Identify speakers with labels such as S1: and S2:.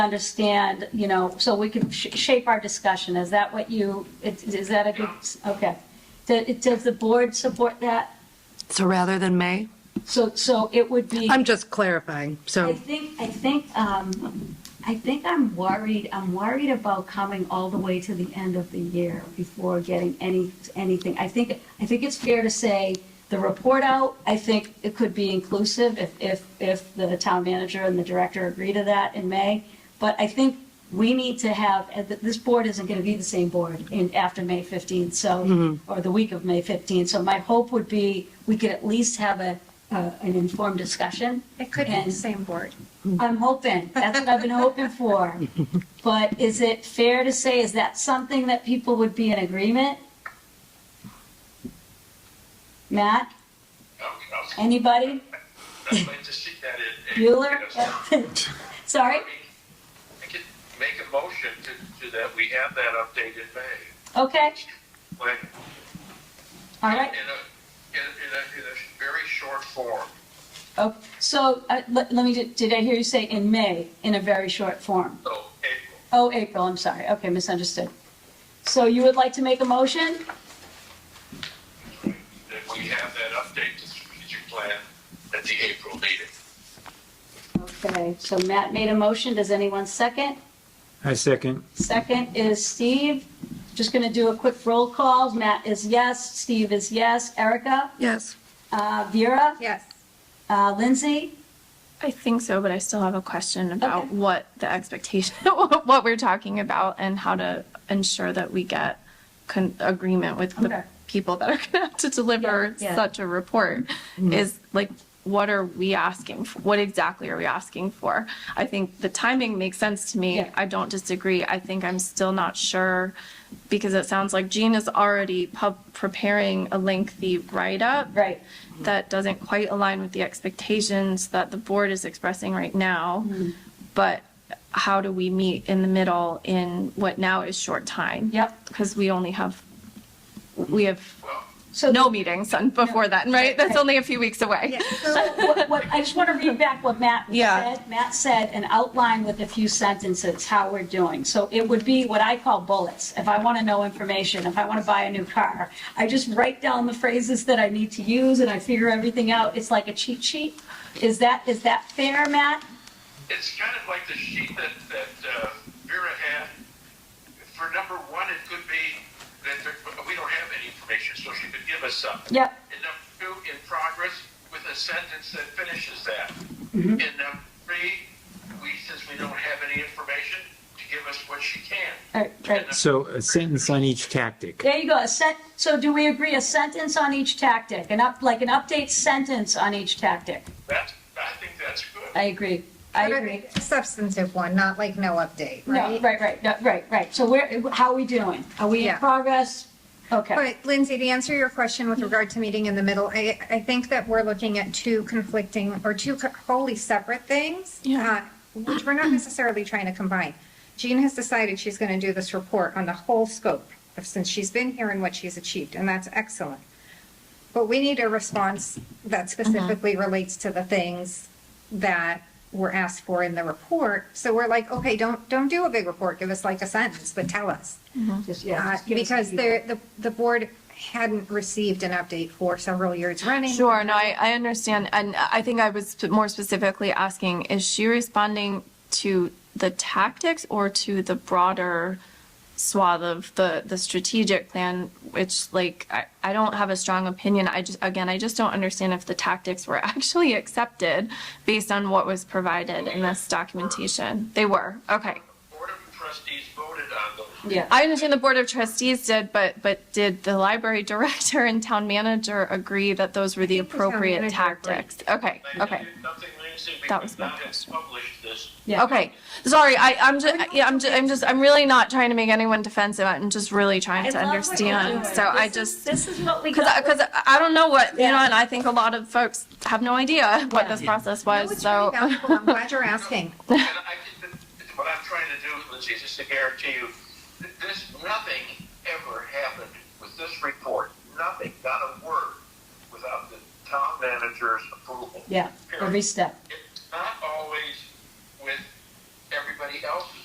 S1: understand, you know, so we can sh- shape our discussion. Is that what you, it- is that a good, okay. Do- Does the board support that?
S2: So rather than May?
S1: So, so it would be.
S2: I'm just clarifying,
S1: I
S2: so,
S1: think, I think, um, I think I'm worried, I'm worried about coming all the way to the end of the year before getting any, anything. I think, I think it's fair to say the report out, I think it could be inclusive if, if, if the town manager and the director agree to that in May. But I think we need to have, and th- this board isn't going to be the same board in, after May 15th, so, or the week of May 15th. So my hope would be we could at least have a, uh, an informed discussion.
S3: It could be
S1: And-
S3: the same board.
S1: I'm hoping, that's what I've been hoping for. But is it fair to say, is that something that people would be in agreement? Matt,
S4: I'd
S1: anybody?
S4: like to see that it. it-
S1: Bueller?
S4: you know,
S1: Sorry?
S4: I could Make a motion to, to that, we have that update in May.
S1: Okay,
S4: When-
S1: all right.
S4: In a, in in a, in a very short form.
S1: Oh, So, uh, let let me, ju- did I hear you say in May, in a very short form?
S4: So April,
S1: Oh, April, I'm sorry, okay, misunderstood. So you would like to make a motion?
S4: that we have that update to strategic plan at the April meeting.
S1: Okay, so Matt made a motion, does anyone second?
S5: I second.
S1: Second is Steve. Just going to do a quick roll call. Matt is yes, Steve is yes, Erica,
S2: yes.
S1: uh, Vera,
S3: Yes.
S1: uh, Lindsay.
S6: I think so, but I still have a question about
S1: Okay.
S6: what the expectation, what we're talking about, and how to ensure that we get con- agreement with
S1: Okay.
S6: the people that are going to have to deliver
S1: Yeah, Mm-hmm. yeah.
S6: such a report. Is like, what are we asking? For? What exactly are we asking for? I think the timing makes sense to me.
S1: Yeah.
S6: I don't disagree. I think I'm still not sure because it sounds like Gene is already pub- preparing a lengthy write up
S1: Right.
S6: that doesn't quite align with the expectations that the board is expressing right now. But how do we meet in the middle in what now is short time?
S1: Yep.
S6: Because we only have, we have
S4: Well,
S1: So
S6: no meetings on before that, right? That's only a few weeks away.
S1: so what- what- I just want to read back what Matt
S6: Yeah.
S1: said. Matt said, and outline with a few sentences how we're doing. So it would be what I call bullets. If I want to know information, if I want to buy a new car, I just write down the phrases that I need to use and I figure everything out. It's like a cheat sheet. Is that, is that fair, Matt?
S4: It's kind of like the sheet that, that uh, Vera had. For number one, it could be that there- we don't have any information, so she could give us some.
S1: Yep.
S4: In number two, in progress, with a sentence that finishes that.
S6: Mm-hmm.
S4: In number three, we, since we don't have any information, to give us what she can.
S1: All right, right.
S5: So a sentence on each tactic.
S1: There you go, a sent, so do we agree a sentence on each tactic, an up, like an update sentence on each tactic?
S4: That's, I think that's good.
S1: I agree, I agree.
S3: A Substantive one, not like no update,
S1: No,
S3: right?
S1: right, right, no, right, right, so where, how are we doing? Are we in
S3: Yeah.
S1: progress? Okay,
S3: But Lindsay, to answer your question with regard to meeting in the middle, I, I think that we're looking at two conflicting or two co- wholly separate things.
S6: Yeah.
S3: uh, Which we're not necessarily trying to combine. Jean has decided she's going to do this report on the whole scope of since she's been here and what she's achieved, and that's excellent. But we need a response that specifically relates to the things that were asked for in the report. So we're like, okay, don't, don't do a big report. Give us like a sentence, but tell us.
S1: just,
S3: Uh,
S1: yeah. just give us
S3: Because
S1: the-
S3: there, the, the board hadn't received an update for several years running.
S6: Sure, no, I, I understand. And I think I was sp- more specifically asking, is she responding to the tactics or to the broader swath of the, the strategic plan, which like, I, I don't have a strong opinion. I just, again, I just don't understand if the tactics were actually accepted based on what was provided in this documentation. They were, okay.
S4: Board of trustees voted on those.
S1: Yeah,
S6: I understand the board of trustees did, but, but did the library director and town manager agree that those were the
S3: think the town
S6: appropriate
S3: manager agreed.
S6: tactics? Okay,
S4: They
S6: okay.
S4: did Nothing, Lindsay, we
S6: That was
S4: could
S6: my
S4: not have
S6: question.
S4: published this.
S1: yeah.
S6: Okay, sorry, I, I'm just, yeah, I'm just, I'm just, I'm really not trying to make anyone defensive, I'm just really
S1: I
S6: trying to
S1: love what you're
S6: understand,
S1: doing.
S6: so
S1: This
S6: I
S1: is-
S6: just,
S1: This is what we
S6: because,
S1: got.
S6: because I don't know what, you know,
S1: Yeah.
S6: and I think a lot of folks have no idea what
S1: Yeah.
S6: this process
S3: No,
S6: was,
S3: it's really
S6: so.
S3: valuable. I'm glad you're asking.
S4: And I think that what I'm trying to do, Lindsay, is just to guarantee you, that this, nothing ever happened with this report, nothing, not a word, without the town manager's approval.
S1: Yeah, every
S4: Period.
S1: step,
S4: It's not always with everybody everybody else's